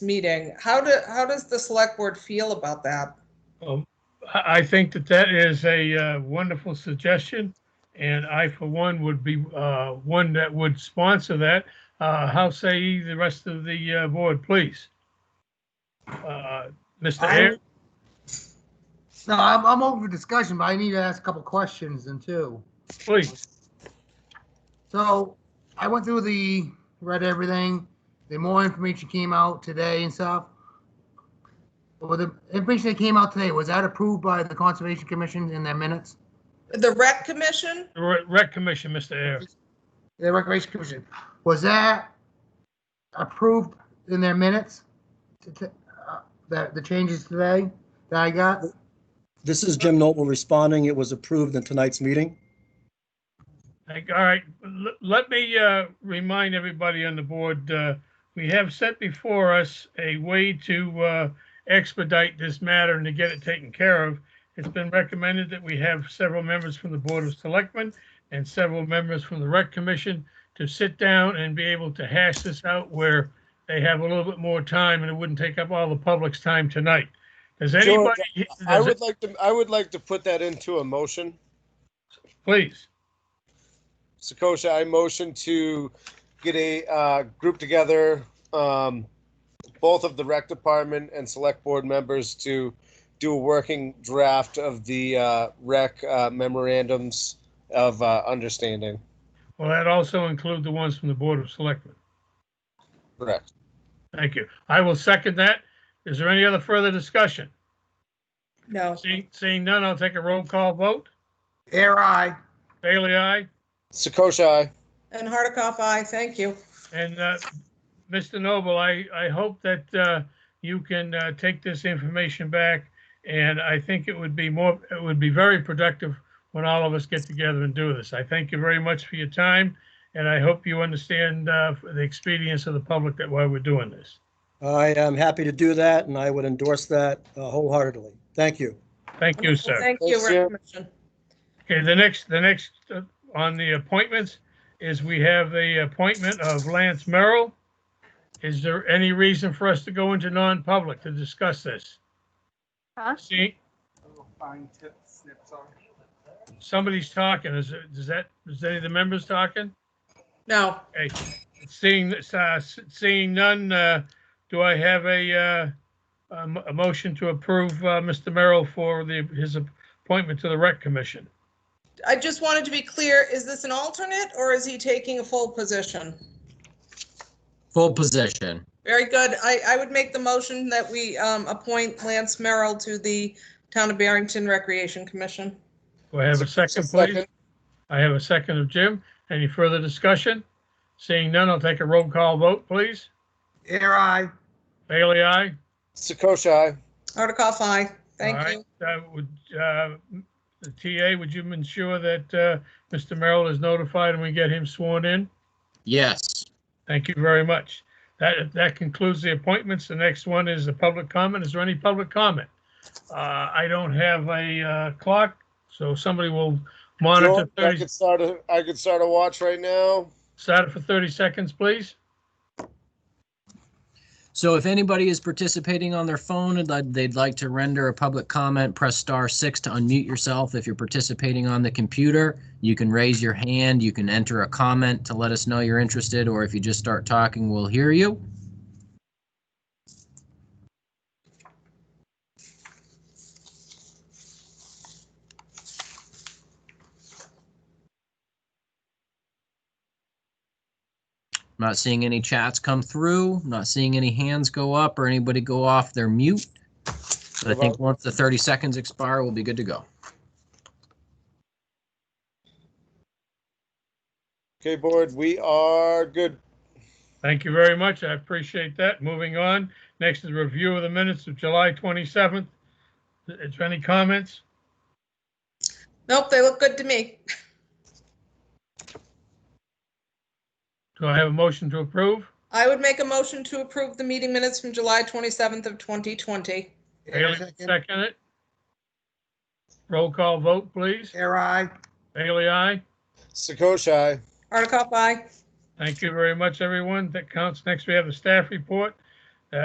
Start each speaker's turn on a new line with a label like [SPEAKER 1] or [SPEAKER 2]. [SPEAKER 1] meeting. How do, how does the select board feel about that?
[SPEAKER 2] Um, I, I think that that is a uh, wonderful suggestion, and I, for one, would be uh, one that would sponsor that. Uh, How say the rest of the uh, board, please? Uh, Mr.
[SPEAKER 3] I-
[SPEAKER 2] Ayers?
[SPEAKER 3] No, I'm, I'm open for discussion, but I need to ask a couple questions then too.
[SPEAKER 2] please.
[SPEAKER 3] So I went through the, read everything, the more information came out today and stuff. Well, the information that came out today, was that approved by the Conservation Commission in their minutes?
[SPEAKER 1] The rec commission?
[SPEAKER 2] Re- Rec Commission, Mr. Ayers.
[SPEAKER 3] The Recreation Commission, was that approved in their minutes? To- to- uh, That, the changes today that I got?
[SPEAKER 4] This is Jim Noble responding. It was approved in tonight's meeting.
[SPEAKER 2] Thank- All right, l- let me uh, remind everybody on the board, uh, we have set before us a way to uh, expedite this matter and to get it taken care of. It's been recommended that we have several members from the Board of Selectmen and several members from the Rec Commission to sit down and be able to hash this out where they have a little bit more time and it wouldn't take up all the public's time tonight. Does
[SPEAKER 5] George,
[SPEAKER 2] anybody,
[SPEAKER 5] I
[SPEAKER 2] does it-
[SPEAKER 5] would like to, I would like to put that into a motion.
[SPEAKER 2] please,
[SPEAKER 5] Sakosha, I motion to get a, uh, group together, um, both of the rec department and select board members to do a working draft of the, uh, rec uh, memorandums of, uh, understanding.
[SPEAKER 2] will that also include the ones from the Board of Selectmen?
[SPEAKER 5] Correct.
[SPEAKER 2] Thank you. I will second that. Is there any other further discussion?
[SPEAKER 1] No.
[SPEAKER 2] Seeing, seeing none, I'll take a roll call vote.
[SPEAKER 3] Air I.
[SPEAKER 2] Bailey, aye.
[SPEAKER 5] Sakosha, aye.
[SPEAKER 1] And Hardikoff, aye, thank you.
[SPEAKER 2] And, uh, Mr. Noble, I, I hope that, uh, you can, uh, take this information back. And I think it would be more, it would be very productive when all of us get together and do this. I thank you very much for your time. And I hope you understand, uh, the expedience of the public that why we're doing this.
[SPEAKER 4] I am happy to do that and I would endorse that uh, wholeheartedly. Thank you.
[SPEAKER 2] Thank you, sir.
[SPEAKER 1] Thank you,
[SPEAKER 5] Thanks,
[SPEAKER 1] rec
[SPEAKER 5] Jim.
[SPEAKER 1] commission.
[SPEAKER 2] Okay, the next, the next uh, on the appointments is we have the appointment of Lance Merrill. Is there any reason for us to go into non-public to discuss this?
[SPEAKER 6] Huh?
[SPEAKER 2] See, somebody's talking. Is, it- is that, is any of the members talking?
[SPEAKER 1] No,
[SPEAKER 2] Seeing, uh, seeing none, uh, do I have a, uh, a mo- a motion to approve uh, Mr. Merrill for the, his appointment to the Rec Commission?
[SPEAKER 1] I just wanted to be clear, is this an alternate or is he taking a full position?
[SPEAKER 7] Full position.
[SPEAKER 1] Very good. I, I would make the motion that we um, appoint Lance Merrill to the Town of Barrington Recreation Commission.
[SPEAKER 2] Do I have a second, please?
[SPEAKER 5] Second.
[SPEAKER 2] I have a second of Jim. Any further discussion? Seeing none, I'll take a roll call vote, please.
[SPEAKER 3] Air I.
[SPEAKER 2] Bailey, aye.
[SPEAKER 5] Sakosha, aye.
[SPEAKER 1] Hardikoff, aye.
[SPEAKER 2] All
[SPEAKER 1] Thank
[SPEAKER 2] right,
[SPEAKER 1] you.
[SPEAKER 2] uh, Would, uh, the TA, would you ensure that, uh, Mr. Merrill is notified and we get him sworn in?
[SPEAKER 7] Yes.
[SPEAKER 2] Thank you very much. That, that concludes the appointments. The next one is the public comment. Is there any public comment? Uh, I don't have a, uh, clock, so somebody will monitor
[SPEAKER 5] George, I
[SPEAKER 2] 30,
[SPEAKER 5] could start a, I could start a watch right now.
[SPEAKER 2] start it for 30 seconds, please.
[SPEAKER 7] So if anybody is participating on their phone and they'd- they'd like to render a public comment, press star six to unmute yourself. If you're participating on the computer, you can raise your hand. You can enter a comment to let us know you're interested, or if you just start talking, we'll hear you. Not seeing any chats come through, not seeing any hands go up or anybody go off their mute. So I think once the 30 seconds expire, we'll be good to go.
[SPEAKER 5] Okay, board, we are good.
[SPEAKER 2] Thank you very much. I appreciate that. Moving on. Next is review of the minutes of July 27th. Is there any comments?
[SPEAKER 1] Nope, they look good to me.
[SPEAKER 2] Do I have a motion to approve?
[SPEAKER 1] I would make a motion to approve the meeting minutes from July 27th of 2020.
[SPEAKER 3] Air
[SPEAKER 2] Bailey,
[SPEAKER 3] second.
[SPEAKER 2] second it. Roll call vote, please.
[SPEAKER 3] Air I.
[SPEAKER 2] Bailey, aye.
[SPEAKER 5] Sakosha, aye.
[SPEAKER 1] Hardikoff, aye.
[SPEAKER 2] Thank you very much, everyone. That counts. Next, we have the staff report.